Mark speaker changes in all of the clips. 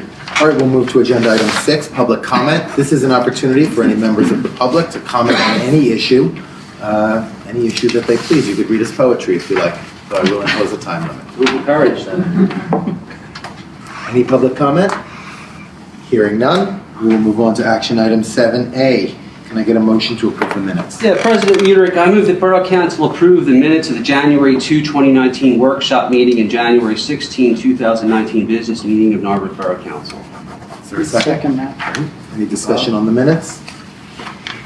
Speaker 1: All right, we'll move to agenda item six, public comment. This is an opportunity for any members of the public to comment on any issue, uh, any issue that they please. You could read us poetry if you like, though I will impose a time limit.
Speaker 2: Move with courage then.
Speaker 1: Any public comment? Hearing none, we will move on to action item seven A. Can I get a motion to approve the minutes?
Speaker 2: Yeah, President Mutrick, I move that Borough Council approve the minutes of the January 2, 2019 workshop meeting and January 16, 2019 business meeting of Narberth Borough Council.
Speaker 1: Is there a second?
Speaker 3: that.
Speaker 1: Any discussion on the minutes?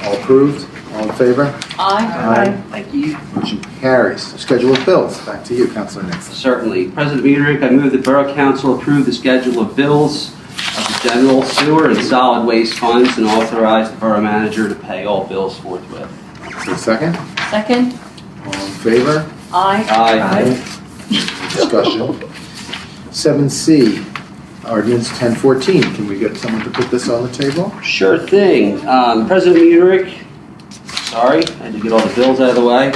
Speaker 1: All approved? All in favor? Aye.
Speaker 2: Thank you.
Speaker 1: Motion carries. Schedule of bills. Back to you, Counselor Nixon.
Speaker 2: Certainly. President Mutrick, I move that Borough Council approve the schedule of bills of the general sewer and solid waste funds and authorize the borough manager to pay all bills forthwith.
Speaker 1: Is there a second?
Speaker 3: Second?
Speaker 1: All in favor?
Speaker 3: Aye.
Speaker 2: Aye.
Speaker 1: Discussion. Seven C, ordinance ten fourteen. Can we get someone to put this on the table?
Speaker 2: Sure thing. Um, President Mutrick, sorry, I had to get all the bills out of the way.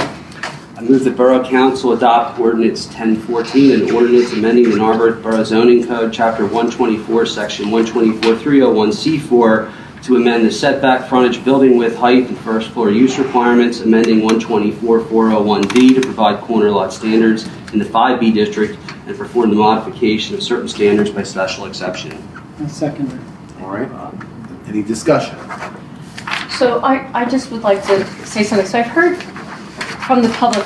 Speaker 2: I move the Borough Council adopt ordinance 1014, an ordinance amending the Narberth Borough Zoning Code, Chapter 124, Section 124-301C4, to amend the setback frontage, building width, height, and first floor use requirements, amending 124-401D to provide corner lot standards in the 5B district, and perform the modification of certain standards by special exception.
Speaker 4: I second it.
Speaker 1: All right. Any discussion?
Speaker 3: So I, I just would like to say something. So I've heard from the public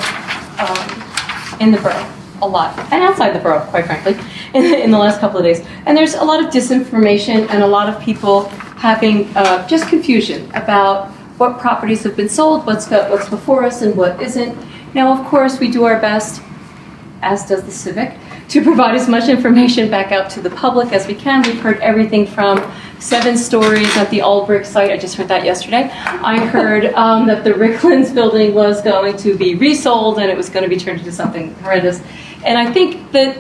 Speaker 3: um, in the borough a lot, and outside the borough, quite frankly, in, in the last couple of days. And there's a lot of disinformation and a lot of people having uh, just confusion about what properties have been sold, what's got, what's before us, and what isn't. Now, of course, we do our best, as does the civic, to provide as much information back out to the public as we can. We've heard everything from seven stories at the Albrecht site. I just heard that yesterday. I heard um, that the Ricklands building was going to be resold and it was going to be turned into something horrendous. And I think that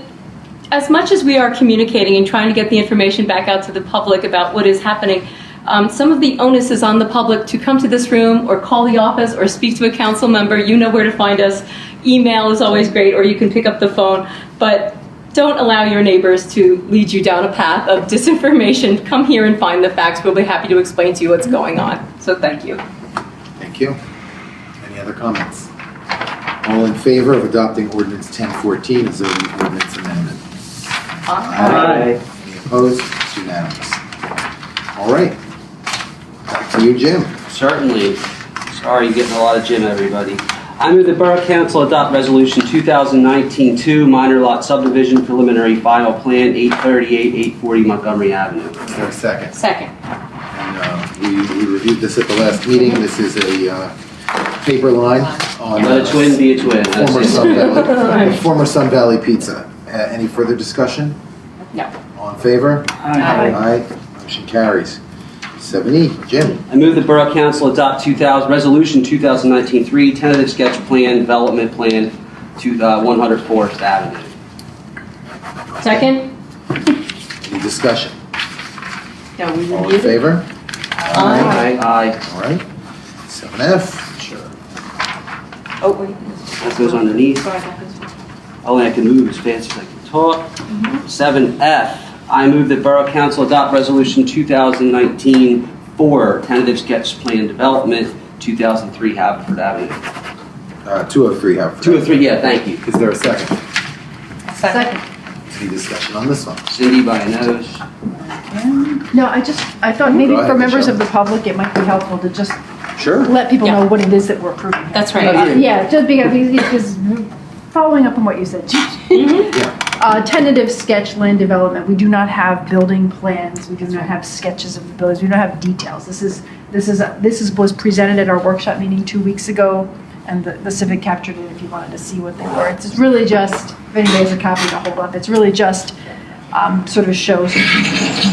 Speaker 3: as much as we are communicating and trying to get the information back out to the public about what is happening, um, some of the onus is on the public to come to this room or call the office or speak to a council member. You know where to find us. Email is always great, or you can pick up the phone. But don't allow your neighbors to lead you down a path of disinformation. Come here and find the facts. We'll be happy to explain to you what's going on. So thank you.
Speaker 1: Thank you. Any other comments? All in favor of adopting ordinance ten fourteen as zoning ordinance amendment? Uh-huh.
Speaker 2: Aye.
Speaker 1: Any opposed? It's unanimous. All right. Back to you, Jim.
Speaker 2: Certainly. Sorry, you're getting a lot of gym, everybody. I move the Borough Council adopt Resolution 2019-2, minor lot subdivision preliminary final plan, 838, 840 Montgomery Avenue.
Speaker 1: Is there a second?
Speaker 3: Second.
Speaker 1: And, uh, We we reviewed this at the last meeting. This is a uh, paper line on. uh,
Speaker 2: Let a twin be a twin.
Speaker 1: Former
Speaker 2: That's
Speaker 1: Sun
Speaker 2: it.
Speaker 1: Valley, former Sun Valley Pizza. Uh, Any further discussion?
Speaker 3: No.
Speaker 1: All in favor?
Speaker 3: Aye.
Speaker 1: Motion carries. Seven E, Jim.
Speaker 2: I move the Borough Council adopt 2000, Resolution 2019-3, tentative sketch plan, development plan, to the 100 Forest Avenue.
Speaker 3: Second?
Speaker 1: Any discussion?
Speaker 3: No, we
Speaker 1: All in favor?
Speaker 3: Aye.
Speaker 2: Aye.
Speaker 1: All right. Seven F. Sure.
Speaker 3: Oh, wait.
Speaker 2: That goes underneath.
Speaker 3: Sorry, that goes-
Speaker 2: Only I can move as fast as I can talk. Seven F, I move that Borough Council adopt Resolution 2019-4, tentative sketch plan development, 2003 Haverford Avenue.
Speaker 1: Two oh three, Haverford.
Speaker 2: 203, yeah, thank you.
Speaker 1: Is there a second?
Speaker 3: Second.
Speaker 1: Any discussion on this one?
Speaker 2: Cindy by a nose.
Speaker 5: No, I just, I thought maybe
Speaker 1: Go ahead,
Speaker 5: for members
Speaker 1: Michelle.
Speaker 5: of the public, it might be helpful to just
Speaker 2: Sure.
Speaker 5: let people
Speaker 3: Yeah.
Speaker 5: know what it is that we're approving. here.
Speaker 3: That's
Speaker 5: Uh,
Speaker 3: right.
Speaker 5: Yeah, just because, because following up on what you said,
Speaker 3: Mm-hmm.
Speaker 5: uh, tentative sketch land development, we do not have building plans, we do not have sketches of the buildings, we don't have details. This is, this is, this is, was presented at our workshop meeting two weeks ago, and the the civic captured it if you wanted to see what they were. It's really just, if anybody has a copy to hold up, it's really just um, sort of shows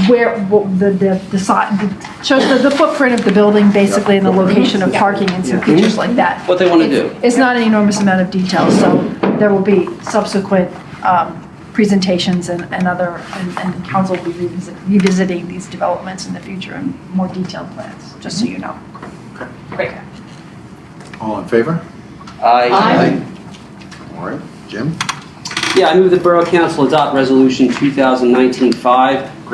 Speaker 5: where, what the, the, the si- shows the- the footprint of the building, basically, and the location of parking and some
Speaker 2: Yeah.
Speaker 5: features like that.
Speaker 2: What they want to do.
Speaker 5: It's not an enormous amount of detail, so there will be subsequent um, presentations and and other, and and council will be revisit- revisiting these developments in the future and more detailed plans, just so you know.
Speaker 3: Great.
Speaker 1: All in favor?
Speaker 3: Aye.
Speaker 1: All right. Jim?
Speaker 2: Yeah, I move that Borough Council adopt Resolution 2019-5, granting